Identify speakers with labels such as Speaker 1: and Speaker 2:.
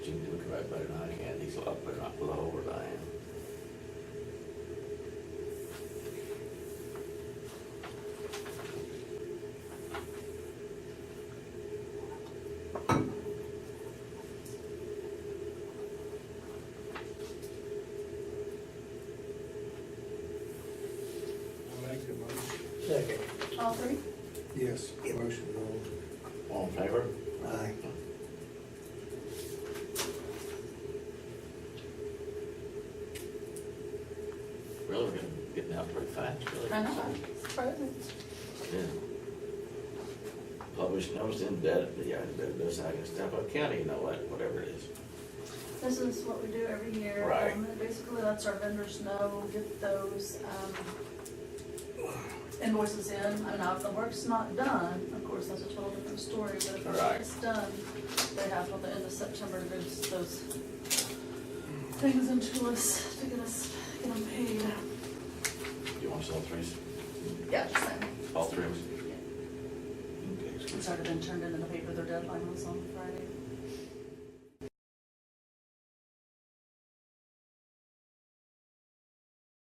Speaker 1: diesel up and up with the whole thing.
Speaker 2: I make the motion.
Speaker 3: Second.
Speaker 4: All three?
Speaker 2: Yes, motion on.
Speaker 1: All in favor?
Speaker 3: Aye.
Speaker 1: Really, we're getting- getting out pretty fast, really.
Speaker 4: I know. Surprising.
Speaker 1: Yeah. Published notice in bed, yeah, in bed, those, I can step up county, you know what, whatever it is.
Speaker 4: This is what we do every year.
Speaker 1: Right.
Speaker 4: Um, Basically, lets our vendors know, get those um, invoices in. And now if the work's not done, of course, that's a total different story, but if the
Speaker 1: Right.
Speaker 4: work's done, they have till the end of September to get those things into us, to get us, get them paid.
Speaker 1: You want to sell three,
Speaker 4: Yeah, just saying.
Speaker 1: all three of us?
Speaker 4: Yeah.
Speaker 1: Okay,
Speaker 4: It's already been turned into the paper, their deadline was on Friday.